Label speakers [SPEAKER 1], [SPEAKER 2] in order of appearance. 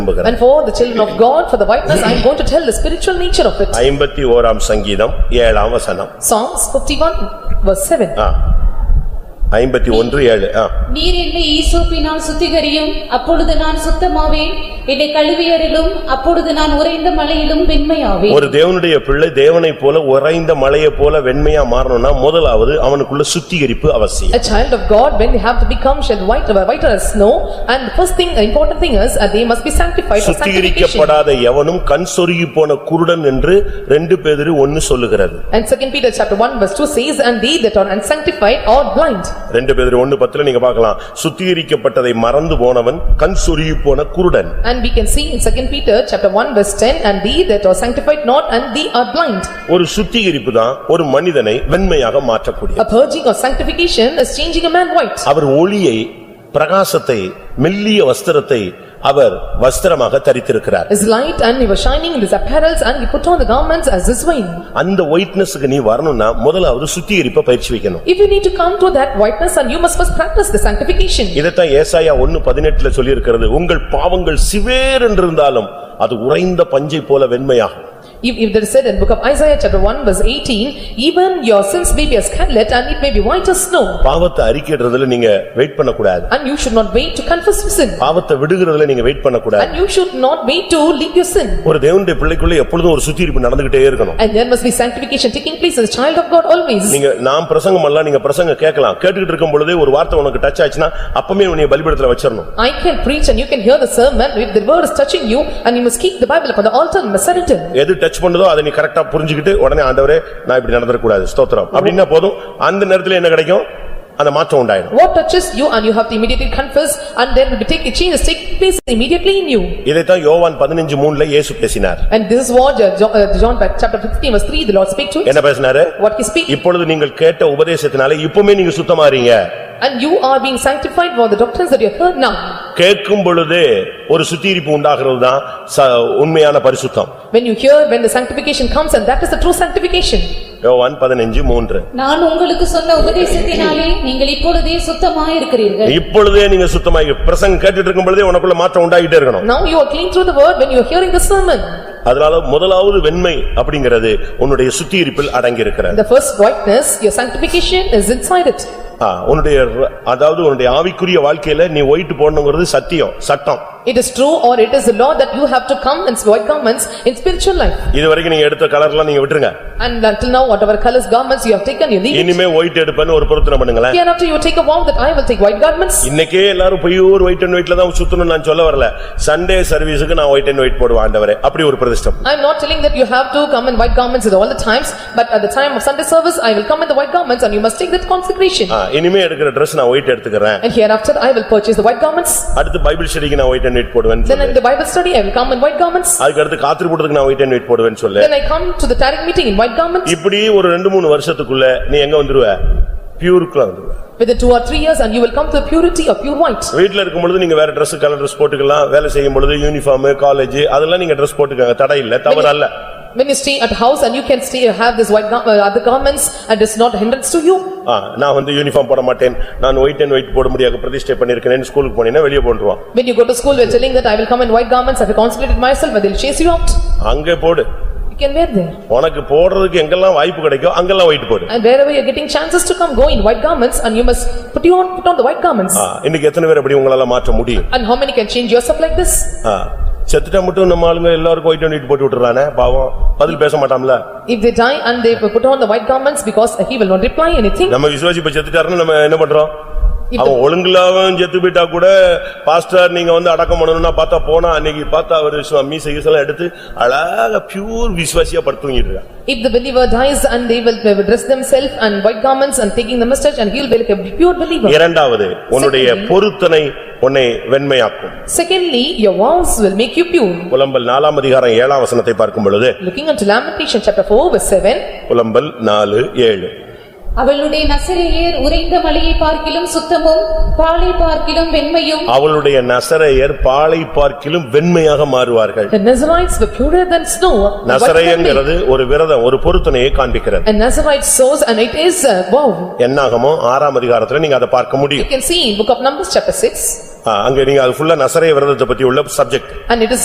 [SPEAKER 1] நம்புகிறேன்
[SPEAKER 2] And for the children of God, for the whiteness, I am going to tell the spiritual nature of it.
[SPEAKER 1] ஐம்பத்தி ஓராம் சங்கீதம் ஏழாம் வசனம்
[SPEAKER 2] Psalms fifty-one verse seven.
[SPEAKER 1] ஐம்பத்தி ஒன்று ஏழு ஆ
[SPEAKER 3] நீர் என்னை ஈசோப்பினால் சுத்திகரியும் அப்பொழுது நான் சுத்தமாவேன் என்னை கழுவியரிலும் அப்பொழுது நான் உறைந்த மலையிலும் வெண்மையாவேன்
[SPEAKER 1] ஒரு தேவனுடைய பிள்ளை தேவனைப் போல உறைந்த மலையைப் போல வெண்மையா மாறணும்னா முதலாவது அவனுக்குள்ள சுத்திகரிப்பு அவசியம்.
[SPEAKER 2] A child of God, when they have to become shall white, uh, whiter as snow, and the first thing, important thing is, that they must be sanctified for sanctification.
[SPEAKER 1] சுத்திகரிக்கப்படாத எவனும் கண் சொருகிப் போன குருடன் என்று ரெண்டு பேதுரு ஒன்னு சொல்லுகிறது.
[SPEAKER 2] And second Peter chapter one verse two says, "And they that are unsanctified are blind."
[SPEAKER 1] ரெண்டு பேதுரு ஒன்னு பத்துல நீங்க பார்க்கலாம். சுத்திகரிக்கப்பட்டதை மறந்து போனவன் கண் சொருகிப் போன குருடன்.
[SPEAKER 2] And we can see in second Peter chapter one verse ten, "And they that are sanctified not, and they are blind."
[SPEAKER 1] ஒரு சுத்திகரிப்புதான் ஒரு மனிதனை வெண்மையாக மாற்றக்கூடியது.
[SPEAKER 2] A purging or sanctification is changing a man white.
[SPEAKER 1] அவர் ஒளியை, பிரகாசத்தை, மெல்லிய வஸ்திரத்தை அவர் வஸ்திரமாக தரித்திருக்கிறார்.
[SPEAKER 2] His light and he was shining in his apparels and he put on the garments as his wine.
[SPEAKER 1] அந்த ஒயிட்னஸ்க்கு நீ வரணும்னா முதலாவது சுத்திகரிப்பை பயிற்சி வைக்கணும்.
[SPEAKER 2] If you need to come to that whiteness and you must first practice the sanctification.
[SPEAKER 1] இதைத்தான் ஏசாயா ஒன்னு பதினெட்டுல சொல்லியிருக்கிறது உங்கள் பாவங்கள் சிவேர் என்றிருந்தாலும் அது உறைந்த பஞ்சை போல வெண்மையாகும்
[SPEAKER 2] If if there is said in book of Isaiah chapter one verse eighteen, even your sins may be as scarlet and it may be white as snow.
[SPEAKER 1] பாவத்தை அறிக்கையிடுறதுல நீங்க வெயிட் பண்ணக்கூடாது
[SPEAKER 2] And you should not wait to confess your sin.
[SPEAKER 1] பாவத்தை விடுகிறதுல நீங்க wait பண்ணக்கூடாது
[SPEAKER 2] And you should not wait to leave your sin.
[SPEAKER 1] ஒரு தேவனுடைய பிள்ளைக்குள்ள எப்பொழுதும் ஒரு சுத்திகரிப்பு நடந்துகிட்டே இருக்கணும்
[SPEAKER 2] And there must be sanctification taking place as a child of God always.
[SPEAKER 1] நீங்க நான் பிரசங்கம் எல்லாம் நீங்க பிரசங்க கேட்கலாம் கேட்டுக்கிட்டு இருக்கும் பொழுதே ஒரு வார்த்தை உனக்கு டச் ஆச்சுன்னா அப்பமே உன்னை பலிபடத்துல வச்சிடணும்
[SPEAKER 2] I can preach and you can hear the sermon. If the word is touching you and you must keep the Bible upon the altar and must surrender.
[SPEAKER 1] எது டச் பண்ணுதோ அதை நீ கரெக்டா புரிஞ்சுக்கிட்டு உடனே ஆண்டவரே நான் இப்படி நடந்துடக்கூடாது ஸ்தோத்திரம் அப்படின்னா போதும் அந்த நேரத்துல என்ன கிடைக்கும் அந்த மாற்றம் உண்டாயிடும்
[SPEAKER 2] What touches you and you have to immediately confess and then we take, change is taking place immediately in you.
[SPEAKER 1] இதைத்தான் யோவான் பதினஞ்சு மூன்ல இயேசு பேசினார்
[SPEAKER 2] And this is what uh, Jo- uh, John, chapter fifteen verse three, the Lord speak to it.
[SPEAKER 1] என்ன பேசினாரு
[SPEAKER 2] What he speak
[SPEAKER 1] இப்பொழுது நீங்கள் கேட்ட உபதேசத்தினாலே இப்பவுமே நீங்க சுத்தமாறீங்க
[SPEAKER 2] and you are being sanctified for the doctrines that you have heard now.
[SPEAKER 1] கேட்கும் பொழுதே ஒரு சுத்திகரிப்பு உண்டாகிறதுதான் உண்மையான பரிசுத்தம்
[SPEAKER 2] When you hear, when the sanctification comes and that is the true sanctification.
[SPEAKER 1] யோவான் பதினஞ்சு மூன்று
[SPEAKER 3] நான் உங்களுக்கு சொன்ன உபதேசத்தினாலே நீங்கள் இப்பொழுதே சுத்தமாயிருக்கிறீர்கள்
[SPEAKER 1] இப்பொழுதே நீங்க சுத்தமாகி பிரசங்கம் கேட்டுட்டு இருக்கும் பொழுதே உனக்குள்ள மாற்றம் உண்டாகிட்டே இருக்கணும்
[SPEAKER 2] Now you are clean through the word when you are hearing the sermon.
[SPEAKER 1] அதனால முதலாவது வெண்மை அப்படிங்கிறது உன்னுடைய சுத்திகரிப்பில் அடங்கியிருக்கிறது
[SPEAKER 2] The first whiteness, your sanctification is inside it.
[SPEAKER 1] ஆ, உன்னுடைய ர- அதாவது உன்னுடைய ஆவிக்குரிய வாழ்க்கையில நீ ஒயிட் போடணுங்கிறது சத்தியம் சட்டம்
[SPEAKER 2] It is true or it is the law that you have to come in white garments in spiritual life.
[SPEAKER 1] இது வரைக்கும் நீங்க எடுத்த கலர்லாம் நீங்க விட்டுருங்க
[SPEAKER 2] And until now, whatever colors garments you have taken, you leave it.
[SPEAKER 1] இனிமே white எடுப்பேன்னு ஒரு பொருத்தனை பண்ணுங்களேன்
[SPEAKER 2] Hereafter you take a vow that I will take white garments.
[SPEAKER 1] இன்னைக்கே எல்லாரும் போய் ஒரு ஒயிட் அண்ட் ஒயிட்ல தான் சுத்தணும் நான் சொல்ல வரல சண்டே சர்வீஸுக்கு நான் ஒயிட் அண்ட் ஒயிட் போடுவேன் ஆண்டவரே அப்படி ஒரு பிரதிஷ்டம்
[SPEAKER 2] I am not telling that you have to come in white garments at all the times, but at the time of Sunday service, I will come in the white garments and you must take that consecration.
[SPEAKER 1] ஆ, இனிமே எடுக்கிற Dress நான் white எடுத்துக்கிறேன்
[SPEAKER 2] And hereafter, I will purchase the white garments.
[SPEAKER 1] அடுத்து Bible ஸ்டடிக்கு நான் white and white போடுவேன்
[SPEAKER 2] Then in the Bible study, I will come in white garments.
[SPEAKER 1] அதுக்கு அடுத்து காத்திருப்பூட்டத்துக்கு நான் ஒயிட் அண்ட் ஒயிட் போடுவேன் சொல்லு
[SPEAKER 2] Then I come to the tarrick meeting in white garments.
[SPEAKER 1] இப்படி ஒரு ரெண்டு மூணு வருஷத்துக்குள்ள நீ எங்க வந்துருவ பியூருக்குலாம் வந்துருவ
[SPEAKER 2] Within two or three years and you will come to the purity of pure white.
[SPEAKER 1] வீட்ல இருக்கும் பொழுது நீங்க வேற Dress கலர் Dress போட்டுக்கலாம் வேலை செய்யும் பொழுது யூனிஃபார்ம் காலேஜ் அதெல்லாம் நீங்க Dress போட்டுக்கங்க தடை இல்ல தவறல்ல
[SPEAKER 2] When you stay at house and you can stay, have this white, gar- uh, other garments and it's not a hindrance to you.
[SPEAKER 1] ஆ, நான் வந்து யூனிஃபார்ம் போட மாட்டேன் நான் ஒயிட் அண்ட் ஒயிட் போட முடியாது பிரதிஷ்டை பண்ணிருக்கேன் ஸ்கூலுக்கு போனீங்கன்னா வெளியே போட்டுருவான்
[SPEAKER 2] When you go to school, we are telling that I will come in white garments, I have consecrated myself and they will chase you out.
[SPEAKER 1] அங்கே போடு
[SPEAKER 2] You can wear there.
[SPEAKER 1] உனக்கு போடுறதுக்கு எங்கெல்லாம் வாய்ப்பு கிடைக்கோ அங்கெல்லாம் ஒயிட் போடு
[SPEAKER 2] And wherever you're getting chances to come, go in white garments and you must put you on, put on the white garments.
[SPEAKER 1] ஆ, இன்னைக்கு எத்தனை பேர் அப்படி உங்களால மாற்ற முடியும்
[SPEAKER 2] And how many can change yourself like this?
[SPEAKER 1] ஆ, செத்துட்டா மட்டும் நம்ம ஆளுங்க எல்லாருக்கும் ஒயிட் ஒயிட் போட்டு விட்டுறானே பாவம் பதில் பேச மாட்டாம்ல
[SPEAKER 2] If they die and they put on the white garments because he will not reply anything.
[SPEAKER 1] நம்ம விசுவாசி இப்ப செத்துட்டாருன்னு நம்ம என்ன பண்றோம் அவன் ஒழுங்குலாவும் செத்து போயிட்டா கூட பாஸ்டர் நீங்க வந்து அடக்கம் பண்ணணும்னா பார்த்தா போனா அன்னைக்கு பார்த்தா அவர் விசுவா மீசை கீசெல்லாம் எடுத்து அழகா பியூர் விசுவாசியா படுத்துங்கிட்டு இருக்கான்
[SPEAKER 2] If the believer dies and they will they will dress themselves and white garments and taking the mustache and he will be like a pure believer.
[SPEAKER 1] இரண்டாவது உன்னுடைய பொருத்தனை உன்னை வெண்மையாக்கும்
[SPEAKER 2] Secondly, your vows will make you pure.
[SPEAKER 1] புலம்பல் நாலாம் அதிகாரம் ஏழாம் வசனத்தை பார்க்கும் பொழுது
[SPEAKER 2] Looking unto Lamentation chapter four verse seven.
[SPEAKER 1] புலம்பல் நாலு ஏழு
[SPEAKER 3] அவளுடைய நசரேயர் உறைந்த மலையை பார்க்கிலும் சுத்தமும் பாலை பார்க்கிலும் வெண்மையும்
[SPEAKER 1] அவளுடைய நசரையர் பாலை பார்க்கிலும் வெண்மையாக மாறுவார்கள்
[SPEAKER 2] The Nazarites were purer than snow. white than milk.
[SPEAKER 1] நசரையங்கிறது ஒரு விரதம் ஒரு பொருத்தனையை காண்பிக்கிறது
[SPEAKER 2] And Nazarite sows and it is a vow.
[SPEAKER 1] என்னாகமோ ஆறாம் அதிகாரத்துல நீங்க அதை பார்க்க
[SPEAKER 2] You
[SPEAKER 1] முடியும்
[SPEAKER 2] can see in book of Numbers chapter six.
[SPEAKER 1] ஆ, அங்க நீங்க அது ஃபுல்லா நசரேய விரதத்தை பத்தி உள்ள சப்ஜெக்ட்
[SPEAKER 2] And it is